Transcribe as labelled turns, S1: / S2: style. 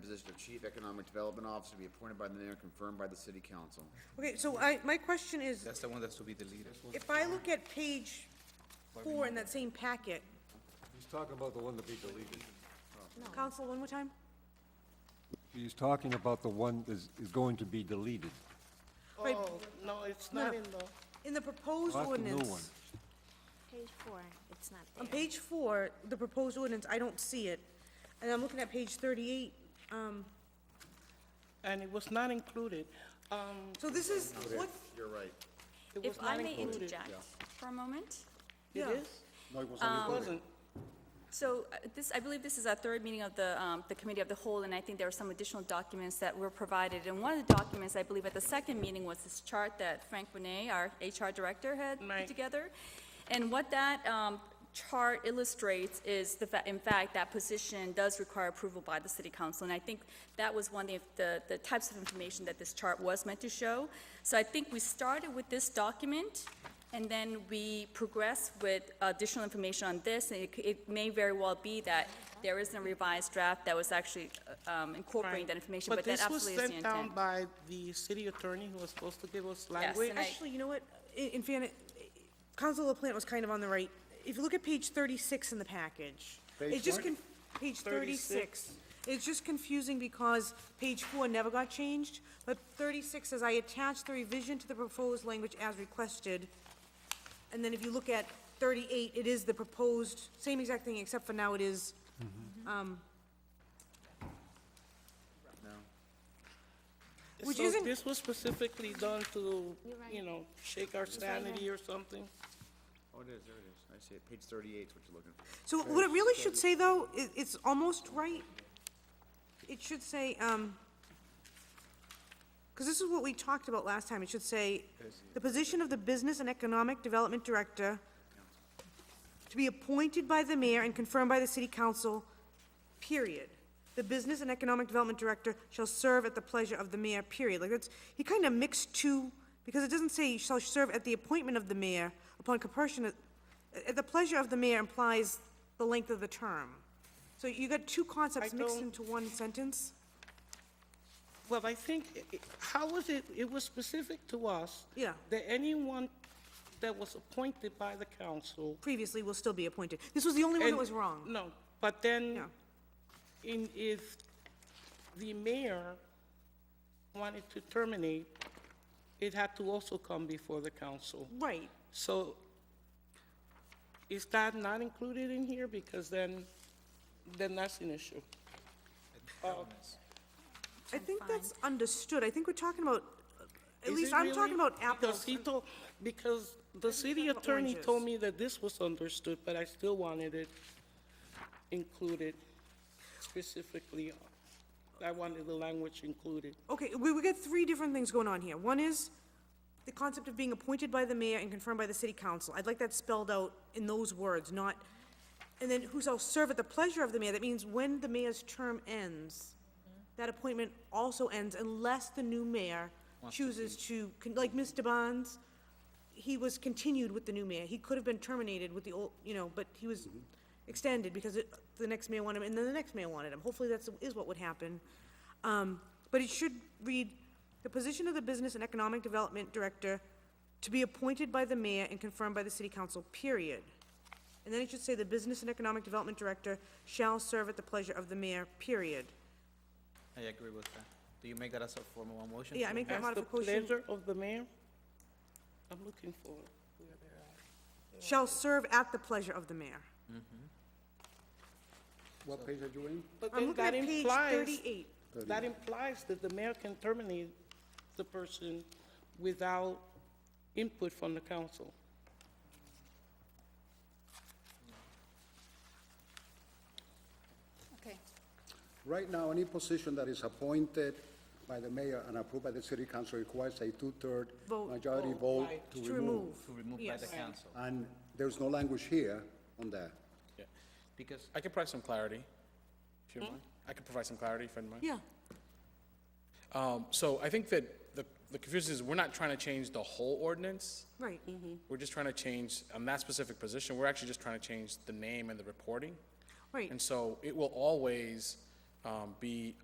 S1: position of Chief Economic Development Officer to be appointed by the mayor and confirmed by the city council.
S2: Okay, so I, my question is,
S3: That's the one that's to be deleted.
S2: if I look at page four in that same packet,
S4: He's talking about the one to be deleted.
S2: Council, one more time?
S4: He's talking about the one that is going to be deleted.
S2: Right.
S5: Oh, no, it's
S2: No,
S5: not
S2: no.
S5: in the,
S2: In the proposed
S4: That's the new
S2: ordinance,
S4: one.
S6: Page four, it's not
S2: on
S6: there.
S2: page four, the proposed ordinance, I don't see it. And I'm looking at page thirty-eight.
S5: and it was not included. Um,
S2: So this is, what,
S1: You're right.
S5: it was
S6: If I
S5: not
S6: may
S5: included.
S6: interject for a moment.
S5: It
S2: Yeah.
S5: is? It wasn't.
S6: So uh, this, I believe this is our third meeting of the, um, the Committee of the Whole, and I think there are some additional documents that were provided. And one of the documents, I believe at the second meeting, was this chart that Frank Bonet, our HR Director, had put
S5: Right.
S6: together. And what that um, chart illustrates is the, fa- in fact, that position does require approval by the City Council. And I think that was one of the, the types of information that this chart was meant to show. So I think we started with this document, and then we progress with additional information on this, and it, c- it may very well be that there is a revised draft that was actually uh, um, incorporating
S5: Right.
S6: that information, but that
S5: this was
S6: absolutely is the
S5: sent down
S6: intent.
S5: by the city attorney who was supposed to give us language.
S6: and I-
S2: actually, you know what, in, in fairness, Council LaPlante was kind of on the right. If you look at page thirty-six in the package, it's just, con- page thirty-six. It's just confusing because page four never got changed, but thirty-six says, I attached the revision to the proposed language as requested. And then if you look at thirty-eight, it is the proposed, same exact thing, except for now it is, um, Which
S5: So
S2: isn't-
S5: this was specifically done to,
S6: right.
S5: you know, shake our sanity or something.
S1: Oh, it is, there it is. I see it. Page thirty-eight is what you're looking for.
S2: So what it really should say, though, i it's almost right. It should say, um, because this is what we talked about last time, it should say, the position of the Business and Economic Development Director to be appointed by the mayor and confirmed by the city council, period. The Business and Economic Development Director shall serve at the pleasure of the mayor, period. Like, that's, he kind of mixed two, because it doesn't say shall serve at the appointment of the mayor upon compulsion, at the pleasure of the mayor implies the length of the term. So you got two concepts
S5: I
S2: mixed
S5: don't-
S2: into one sentence?
S5: Well, I think, i- i- how was it, it was specific to us.
S2: Yeah.
S5: That anyone that was appointed by the council.
S2: Previously will still be appointed. This was the only one that
S5: and-
S2: was wrong.
S5: No, but then,
S2: Yeah.
S5: in, if the mayor wanted to terminate, it had to also come before the council.
S2: Right.
S5: So is that not included in here? Because then, then that's an issue.
S2: I think that's understood. I think we're talking about, at
S5: Is
S2: least
S5: it
S2: I'm talking
S5: really?
S2: about apples.
S5: Because he told, because the city
S2: about
S5: attorney
S2: oranges.
S5: told me that this was understood, but I still wanted it included specifically. I wanted the language included.
S2: Okay, we, we got three different things going on here. One is the concept of being appointed by the mayor and confirmed by the city council. I'd like that spelled out in those words, not, and then who shall serve at the pleasure of the mayor. That means when the mayor's term ends,
S5: Mm-hmm.
S2: that appointment also ends unless the new mayor chooses to, con- like Mr. Bonds, he was continued with the new mayor. He could have been terminated with the old, you know, but he was extended because it, the next mayor wanted him, and then the next mayor wanted him. Hopefully that's, is what would happen. Um, but it should read, the position of the Business and Economic Development Director to be appointed by the mayor and confirmed by the city council, period. And then it should say, the Business and Economic Development Director shall serve at the pleasure of the mayor, period.
S3: I agree with that. Do you make that as a formal motion?
S2: Yeah, I make that
S5: As the
S2: modification.
S5: pleasure of the mayor? I'm looking for where they're at.
S2: Shall serve at the pleasure of the mayor.
S7: What page are you in?
S5: But
S2: I'm
S5: then
S2: looking at
S5: that
S2: page
S5: implies,
S2: thirty-eight.
S5: that implies that the mayor can terminate the person without input from the council.
S6: Okay.
S7: Right now, any position that is appointed by the mayor and approved by the city council requires a two-third
S2: Vote.
S7: majority vote to remove.
S3: To remove by the council.
S7: And there's no language here on that.
S8: Yeah,
S3: Because,
S8: I can provide some clarity, if you don't mind. I can provide some clarity, if you don't mind.
S2: Hmm? Yeah,
S8: Um, so I think that the, the confusion is, we're not trying to change the whole ordinance.
S2: right.
S8: We're just trying to change, on that specific position, we're actually just trying to change the name and the reporting.
S2: Right.
S8: And so it will always, um, be